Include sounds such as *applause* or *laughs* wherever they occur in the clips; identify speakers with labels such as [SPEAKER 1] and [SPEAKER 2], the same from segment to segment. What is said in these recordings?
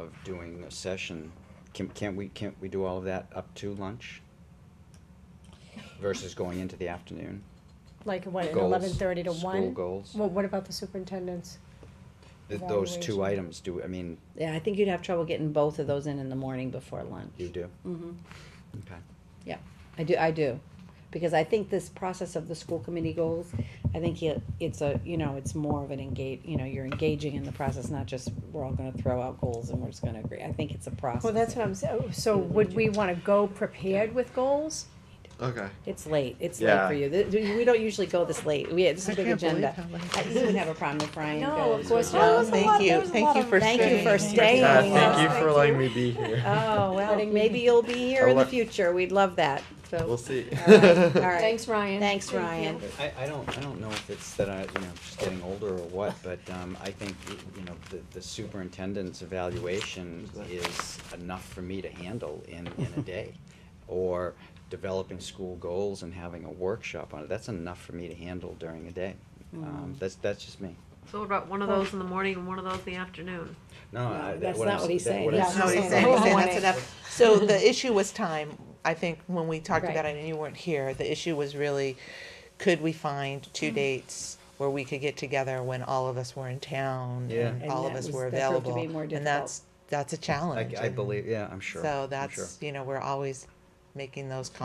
[SPEAKER 1] of doing a session, can, can't we, can't we do all of that up to lunch? Versus going into the afternoon?
[SPEAKER 2] Like what, at
[SPEAKER 1] Goals,
[SPEAKER 2] eleven thirty to one?
[SPEAKER 1] School goals,
[SPEAKER 2] Well, what about the superintendent's?
[SPEAKER 1] Th- those two
[SPEAKER 2] evaluation.
[SPEAKER 1] items, do, I mean,
[SPEAKER 3] Yeah, I think you'd have trouble getting both of those in in the morning before lunch.
[SPEAKER 1] you do,
[SPEAKER 3] Mm-hmm.
[SPEAKER 1] okay.
[SPEAKER 3] Yeah, I do, I do, because I think this process of the school committee goals, I think it, it's a, you know, it's more of an engage, you know, you're engaging in the process, not just, we're all gonna throw out goals and we're just gonna agree, I think it's a process.
[SPEAKER 2] Well, that's what I'm saying, so would we wanna go prepared with goals?
[SPEAKER 4] Okay.
[SPEAKER 3] It's late, it's late for
[SPEAKER 4] Yeah.
[SPEAKER 3] you, Th- th- we don't usually go this late, we, this is a big agenda. I you wouldn't have a problem if Ryan
[SPEAKER 2] No,
[SPEAKER 3] goes.
[SPEAKER 2] of course
[SPEAKER 3] or
[SPEAKER 2] not.
[SPEAKER 3] John.
[SPEAKER 2] was a lot-
[SPEAKER 5] Thank
[SPEAKER 2] there
[SPEAKER 5] you,
[SPEAKER 2] was a
[SPEAKER 5] thank
[SPEAKER 2] lot
[SPEAKER 5] you
[SPEAKER 2] of
[SPEAKER 5] for staying.
[SPEAKER 3] Thank you for staying.
[SPEAKER 4] Yeah,
[SPEAKER 2] Yes,
[SPEAKER 4] thank you
[SPEAKER 2] thank
[SPEAKER 4] for letting me be here.
[SPEAKER 3] Oh, well, maybe you'll be here
[SPEAKER 4] I'll
[SPEAKER 3] in the
[SPEAKER 4] let-
[SPEAKER 3] future, we'd love that, so.
[SPEAKER 4] We'll see.
[SPEAKER 3] All right, all
[SPEAKER 4] *laughs*
[SPEAKER 3] right.
[SPEAKER 2] Thanks, Ryan.
[SPEAKER 3] Thanks, Ryan.
[SPEAKER 1] I, I don't, I don't know if it's that I, you know, just getting older or *laughs* what, but, um, I think, you know, the, the superintendent's evaluation is enough for me to handle in, in a day. Or developing school goals and having a workshop on it, that's enough for me to handle during a day. Um, that's, that's just me.
[SPEAKER 6] So what about one of those in the morning and one of those in the afternoon?
[SPEAKER 1] No, I,
[SPEAKER 3] that's
[SPEAKER 1] that, what I'm,
[SPEAKER 3] not what
[SPEAKER 1] s-
[SPEAKER 3] he's
[SPEAKER 1] that,
[SPEAKER 3] saying.
[SPEAKER 1] what
[SPEAKER 2] Yeah,
[SPEAKER 1] I'm
[SPEAKER 2] That's
[SPEAKER 5] That's
[SPEAKER 2] not
[SPEAKER 5] not
[SPEAKER 2] what
[SPEAKER 5] what
[SPEAKER 1] *laughs*
[SPEAKER 2] I'm saying. I
[SPEAKER 5] he's saying, he's saying
[SPEAKER 2] want
[SPEAKER 5] that's
[SPEAKER 2] it.
[SPEAKER 5] enough. So the issue was time, I think when we talked
[SPEAKER 2] Right.
[SPEAKER 5] about it and you weren't here, the issue was really, could we find
[SPEAKER 3] Mm.
[SPEAKER 5] two dates where we could get together when all of us were in town?
[SPEAKER 1] Yeah.
[SPEAKER 5] and
[SPEAKER 3] And
[SPEAKER 5] All of
[SPEAKER 3] that
[SPEAKER 5] us
[SPEAKER 3] was-
[SPEAKER 5] were
[SPEAKER 3] that proved to
[SPEAKER 5] available.
[SPEAKER 3] be more difficult.
[SPEAKER 5] And that's, that's a challenge.
[SPEAKER 1] I, I
[SPEAKER 5] and
[SPEAKER 1] believe, yeah, I'm sure.
[SPEAKER 5] So
[SPEAKER 1] I'm sure.
[SPEAKER 5] that's, you know, we're always making those
[SPEAKER 1] Well, I,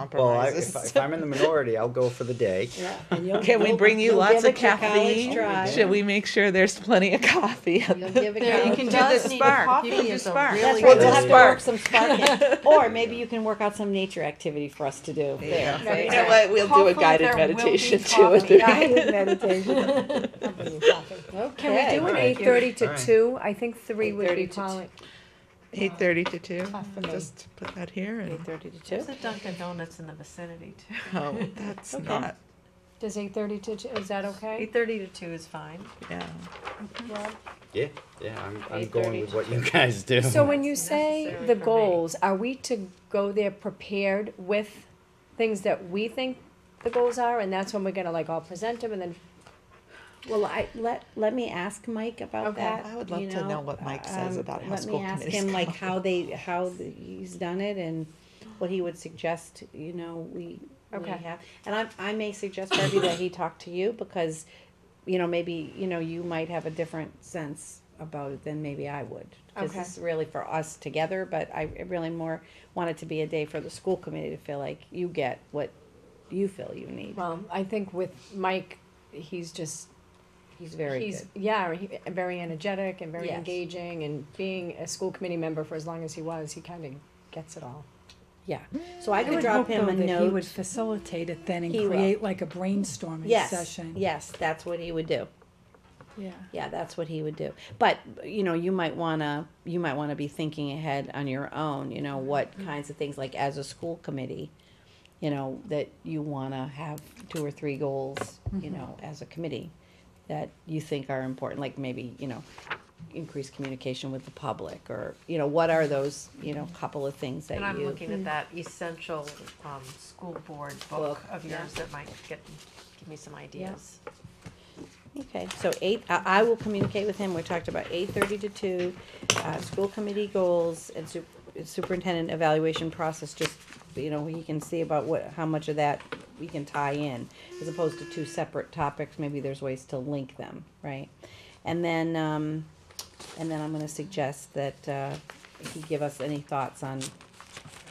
[SPEAKER 5] compromises. *laughs*
[SPEAKER 1] if, I- if I'm in the minority, I'll go for the day.
[SPEAKER 3] Yeah, and you'll-
[SPEAKER 5] Can we
[SPEAKER 3] you'll-
[SPEAKER 5] bring you
[SPEAKER 3] you'll
[SPEAKER 5] lots
[SPEAKER 3] give
[SPEAKER 5] of
[SPEAKER 3] it your college
[SPEAKER 5] caffeine?
[SPEAKER 3] try.
[SPEAKER 5] Should we make sure there's plenty of coffee? at
[SPEAKER 3] You'll
[SPEAKER 5] the- *laughs*
[SPEAKER 3] give it
[SPEAKER 6] There, you
[SPEAKER 3] college
[SPEAKER 6] can
[SPEAKER 3] try.
[SPEAKER 6] do the spark. You can do spark.
[SPEAKER 3] That's
[SPEAKER 1] Well,
[SPEAKER 3] right, we'll
[SPEAKER 1] the
[SPEAKER 3] have to work some spark
[SPEAKER 5] *laughs*
[SPEAKER 3] in. or maybe you can work out some nature activity for us to do.
[SPEAKER 5] Yeah.
[SPEAKER 3] There,
[SPEAKER 5] You
[SPEAKER 3] see?
[SPEAKER 5] know what, we'll do a
[SPEAKER 6] Hopefully
[SPEAKER 5] guided
[SPEAKER 6] there will be
[SPEAKER 3] *laughs*
[SPEAKER 5] meditation too.
[SPEAKER 6] coffee.
[SPEAKER 5] at the-
[SPEAKER 2] Guided
[SPEAKER 5] *laughs*
[SPEAKER 2] meditation. Can we do an
[SPEAKER 1] Alright.
[SPEAKER 2] eight thirty to
[SPEAKER 1] Alright.
[SPEAKER 2] two? I think three would be
[SPEAKER 3] 8:30 to
[SPEAKER 2] probably.
[SPEAKER 5] Eight thirty to two.
[SPEAKER 2] for me.
[SPEAKER 5] Just put that here
[SPEAKER 3] Eight
[SPEAKER 5] and,
[SPEAKER 3] thirty to
[SPEAKER 6] There's
[SPEAKER 3] two.
[SPEAKER 6] a Dunkin' Donuts in the vicinity too.
[SPEAKER 5] oh, that's not,
[SPEAKER 2] Does eight thirty to, two is that okay?
[SPEAKER 6] Eight thirty to two is fine.
[SPEAKER 5] yeah.
[SPEAKER 1] Yeah, yeah, I'm, I'm
[SPEAKER 3] 8:30
[SPEAKER 1] going with what you guys do.
[SPEAKER 6] *laughs*
[SPEAKER 2] So when you say
[SPEAKER 6] necessary
[SPEAKER 2] the
[SPEAKER 6] for me.
[SPEAKER 2] goals, are we to go there prepared with things that we think the goals are, and that's when we're gonna like all present them and then
[SPEAKER 3] Well, I let let me ask Mike about
[SPEAKER 2] Okay.
[SPEAKER 3] that.
[SPEAKER 5] I would love
[SPEAKER 3] you um,
[SPEAKER 5] to know what Mike says about how school
[SPEAKER 3] Let me
[SPEAKER 5] committees
[SPEAKER 3] ask him like
[SPEAKER 5] *laughs* go.
[SPEAKER 3] how they how the, he's done it and what he would suggest. You know, we we
[SPEAKER 2] Okay.
[SPEAKER 3] have, and I I may suggest Debbie that he talk to you because, you know, maybe you know you might have a different sense about it than maybe I would. Because
[SPEAKER 2] Okay.
[SPEAKER 3] this is really for us together, but I really more want it to be a day for the school committee to feel like you get what you feel you need.
[SPEAKER 2] Well, I think with Mike, he's just
[SPEAKER 3] He's very
[SPEAKER 2] he's
[SPEAKER 3] good.
[SPEAKER 2] yeah, he, very energetic and very
[SPEAKER 3] Yes.
[SPEAKER 2] engaging, and being a school committee member for as long as he was, he kind of gets it all.
[SPEAKER 3] Yeah. So I could drop him a note.
[SPEAKER 7] He would facilitate it then and
[SPEAKER 3] He will.
[SPEAKER 7] create like a brainstorming
[SPEAKER 3] yes,
[SPEAKER 7] session.
[SPEAKER 3] Yes, that's what he would do.
[SPEAKER 7] Yeah.
[SPEAKER 3] Yeah, that's what he would do. But you know, you might wanna you might wanna be thinking ahead on your own. You know what
[SPEAKER 6] Mm-hmm.
[SPEAKER 3] kinds of things like as a school committee, you know that you wanna have two or three goals. You
[SPEAKER 6] Mm-hmm.
[SPEAKER 3] know, as a committee, that you think are important. Like maybe you know, increase communication with the public, or you know, what are those you know couple of things that
[SPEAKER 6] And I'm
[SPEAKER 3] you Mm.
[SPEAKER 6] looking at that essential, um, school board book
[SPEAKER 3] Book,
[SPEAKER 6] of yours
[SPEAKER 3] yeah.
[SPEAKER 6] that might get, give me some ideas.
[SPEAKER 3] Okay, so eight, I, I will communicate with him, we talked about eight thirty to two, uh, school committee goals and su- superintendent evaluation process, just, you know, he can see about what, how much of that we can tie in, as opposed to two separate topics, maybe there's ways to link them, right? And then, um, and then I'm gonna suggest that, uh, he give us any thoughts on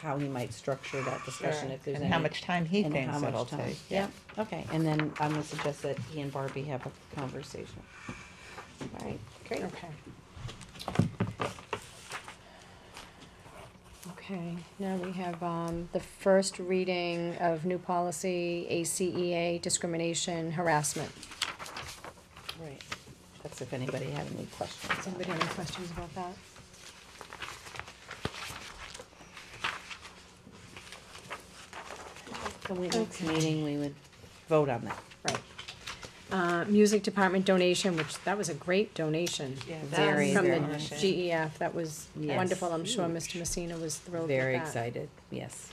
[SPEAKER 3] how he might structure that discussion, if there's any.
[SPEAKER 5] And how much time he
[SPEAKER 3] And
[SPEAKER 5] thinks
[SPEAKER 3] how
[SPEAKER 5] it'll
[SPEAKER 3] much time?
[SPEAKER 5] take.
[SPEAKER 3] Yep, okay, and then I'm gonna suggest that he and Barbie have a conversation. Alright, great.
[SPEAKER 2] Okay. Okay, now we have, um, the first reading of new policy, ACEA discrimination harassment.
[SPEAKER 3] Right. That's if anybody had any questions.
[SPEAKER 2] Anybody have any questions about that?
[SPEAKER 3] So we, next meeting, we would vote on that.
[SPEAKER 2] Right. Uh, music department donation, which, that was a great donation.
[SPEAKER 5] Yeah,
[SPEAKER 3] Very,
[SPEAKER 2] From the
[SPEAKER 3] very
[SPEAKER 5] much.
[SPEAKER 2] GEF, that was
[SPEAKER 3] Yes.
[SPEAKER 2] wonderful, I'm sure Mr. Messina was thrilled with that.
[SPEAKER 3] Very excited, yes.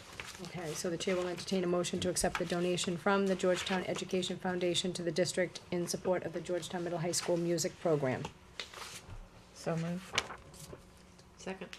[SPEAKER 2] Okay, so the chair will entertain a motion to accept the donation from the Georgetown Education Foundation to the district in support of the Georgetown Middle High School music program.
[SPEAKER 5] So move.
[SPEAKER 6] Second.